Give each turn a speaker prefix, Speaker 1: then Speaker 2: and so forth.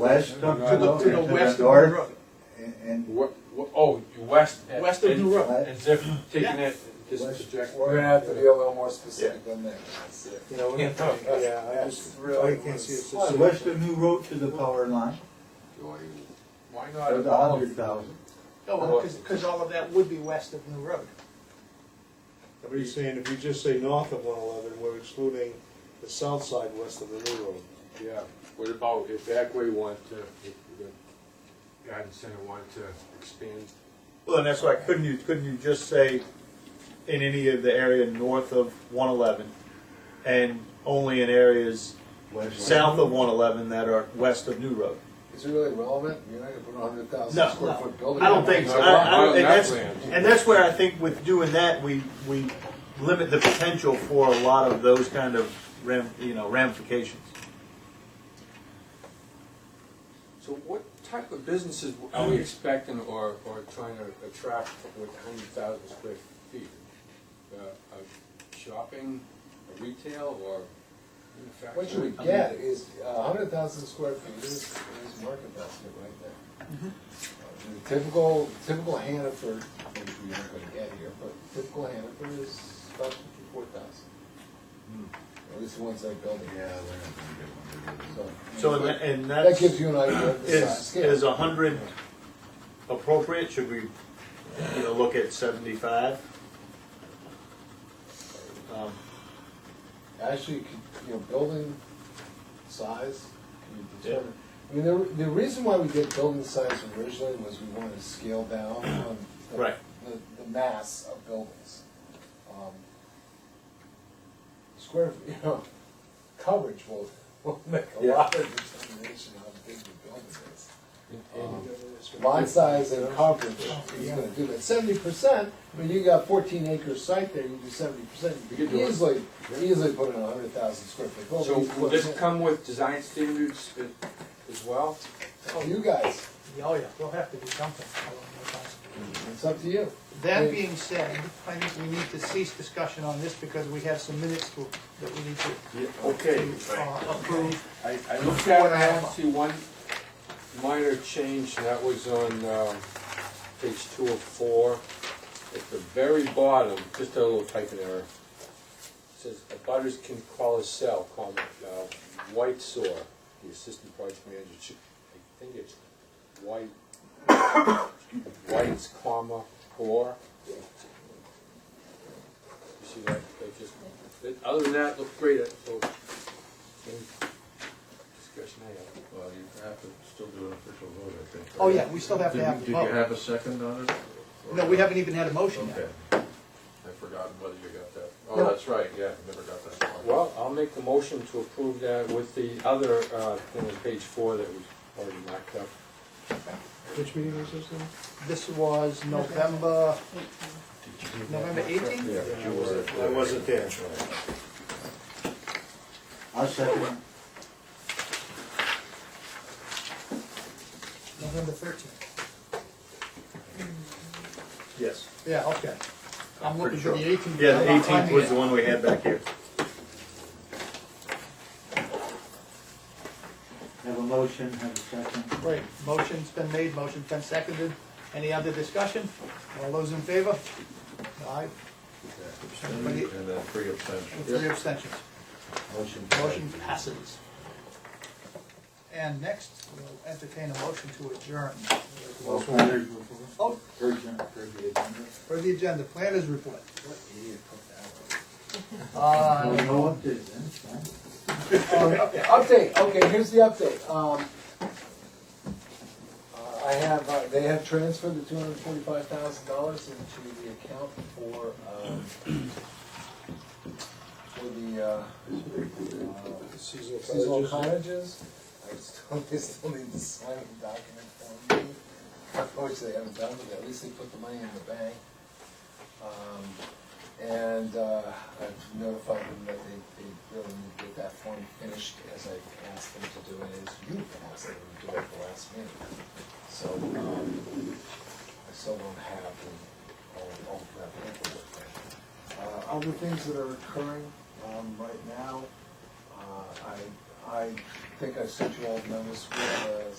Speaker 1: West
Speaker 2: No,
Speaker 1: of
Speaker 2: no,
Speaker 1: the
Speaker 2: I
Speaker 1: to
Speaker 2: looked
Speaker 1: the
Speaker 2: west of
Speaker 1: north
Speaker 2: Europe.
Speaker 1: and- and
Speaker 2: What, what, oh, you west. and-
Speaker 3: West of
Speaker 2: and-
Speaker 3: New Road.
Speaker 2: As if taking
Speaker 3: Yeah.
Speaker 2: it, just
Speaker 1: west.
Speaker 2: project.
Speaker 4: We're gonna have to be a little more specific
Speaker 1: Yeah.
Speaker 4: than that. You know, we
Speaker 2: Yeah.
Speaker 4: have to, yeah, that's
Speaker 1: Oh,
Speaker 4: really.
Speaker 1: you can't see it. So west of New Road to the power line,
Speaker 2: Why
Speaker 1: for the
Speaker 2: not?
Speaker 1: hundred thousand.
Speaker 3: Oh, because all of that would be west of New Road.
Speaker 5: But he's saying if you just say north of one eleven, we're excluding the south side west of the new road.
Speaker 2: Yeah, what about if Agway wanted to, if the guidance center wanted to expand?
Speaker 6: Well, and that's why couldn't you couldn't you just say in any of the area north of 111 and only in areas south of 111 that are west of New Road?
Speaker 4: Is it really relevant? You're not gonna put a hundred
Speaker 6: No,
Speaker 4: thousand square
Speaker 6: no.
Speaker 4: foot building.
Speaker 6: I don't
Speaker 4: on
Speaker 6: think so.
Speaker 4: it.
Speaker 6: I, I,
Speaker 2: Well,
Speaker 6: and that's
Speaker 2: that's-
Speaker 6: and that's where I think with doing that we we limit the potential for a lot of those kind of ram, you know ramifications.
Speaker 2: So what type of businesses are we expecting or, or trying to attract with hundred thousand square feet? Uh, a shopping, a retail, or
Speaker 4: What you
Speaker 2: manufacturing?
Speaker 4: would get is a hundred thousand square feet is, is market basket right there. Uh, The Typical, typical Hannaford, which we aren't gonna get here, but typical Hannaford is about fifty-four thousand. At least the ones I built. Yeah,
Speaker 6: So and, that- and that's
Speaker 4: That gives you an idea of the size
Speaker 6: Is,
Speaker 4: scale.
Speaker 6: is a hundred appropriate? Should we, you know, look at seventy-five? Um,
Speaker 4: actually, could- you know, building size can be determined. I mean, the, the reason why we did building size originally was we wanted to scale down on the,
Speaker 6: Right.
Speaker 4: the, the mass of buildings. Um, Square, you know, coverage will, will make a lot of determination how big the building is. Um, Lot size and coverage is gonna do that. Seventy percent, when you got fourteen acre site there, you do seventy percent,
Speaker 2: You
Speaker 4: you
Speaker 2: could
Speaker 4: can
Speaker 2: do it.
Speaker 4: easily, easily put in a hundred thousand square foot
Speaker 2: So
Speaker 4: building.
Speaker 2: will this come with design standards a- as well?
Speaker 4: You guys,
Speaker 3: Oh, yeah, we'll have to do something along those lines.
Speaker 4: it's up to you.
Speaker 3: That being said, I think we need to cease discussion on this because we have some minutes to, that we need to
Speaker 2: Okay.
Speaker 3: uh, approve.
Speaker 2: I, I looked at it, I only see one minor change, and that was on, um, page two of four. At the very bottom, just a little typing error. Says, "Abutters can call a cell, comma, uh, White Soar, the assistant project manager, should- I think it's White, White's, comma, or." You see that, that just, that- other than that, looked great, so, any discussion I have?
Speaker 7: Well, you have to still do an official vote, I think.
Speaker 3: Oh, yeah, we still have to
Speaker 7: Did-
Speaker 3: have a
Speaker 7: Did you
Speaker 3: vote.
Speaker 7: have a second on it? Or-
Speaker 3: No, we haven't even had a motion
Speaker 7: Okay.
Speaker 3: yet.
Speaker 7: I've forgotten whether you got that.
Speaker 3: No.
Speaker 7: Oh, that's right, yeah, I never got that. far.
Speaker 2: Well, I'll make the motion to approve that with the other, uh, thing on page four that was already marked up.
Speaker 5: Which meeting was this in?
Speaker 3: This was November, November eighteenth?
Speaker 7: Yeah, but you were.
Speaker 5: I wasn't there.
Speaker 1: I'll second it.
Speaker 3: November thirteenth.
Speaker 6: Yes.
Speaker 3: Yeah, okay. I'm looking for
Speaker 6: Pretty
Speaker 3: the eighteenth.
Speaker 6: Yeah, the eighteenth was the one we had back here.
Speaker 1: Have a motion, have a second.
Speaker 3: Great, motion's been made, motion's been seconded. Any other discussion? All those in favor? Aye, Everybody-
Speaker 7: And then three abstentions.
Speaker 3: with three abstentions.
Speaker 1: Motion.
Speaker 3: Motion passes. And next, we'll entertain a motion to adjourn.
Speaker 1: Well, planners
Speaker 3: Oh,
Speaker 1: urgent, urgent agenda.
Speaker 3: for the agenda, planners report.
Speaker 4: What idiot put that one?
Speaker 3: Uh,
Speaker 1: Well, no update then, it's fine.
Speaker 4: Um, Update, okay, here's the update. Um, uh, I have, uh, they have transferred the two hundred forty-five thousand dollars into the account for, um, for the, uh, uh, seasonal cottages. I still, they still need to sign the document for me, which they haven't done, but at least they put the money in the bank. Um, and uh, I've notified them that they, they really need to get that form finished as I asked them to do it, as you asked them to do it at the last meeting. So, um, I still don't have um, the, all, all of that paperwork there. Uh, other things that are occurring, um, right now, uh, I, I think I sent you all the numbers with, uh,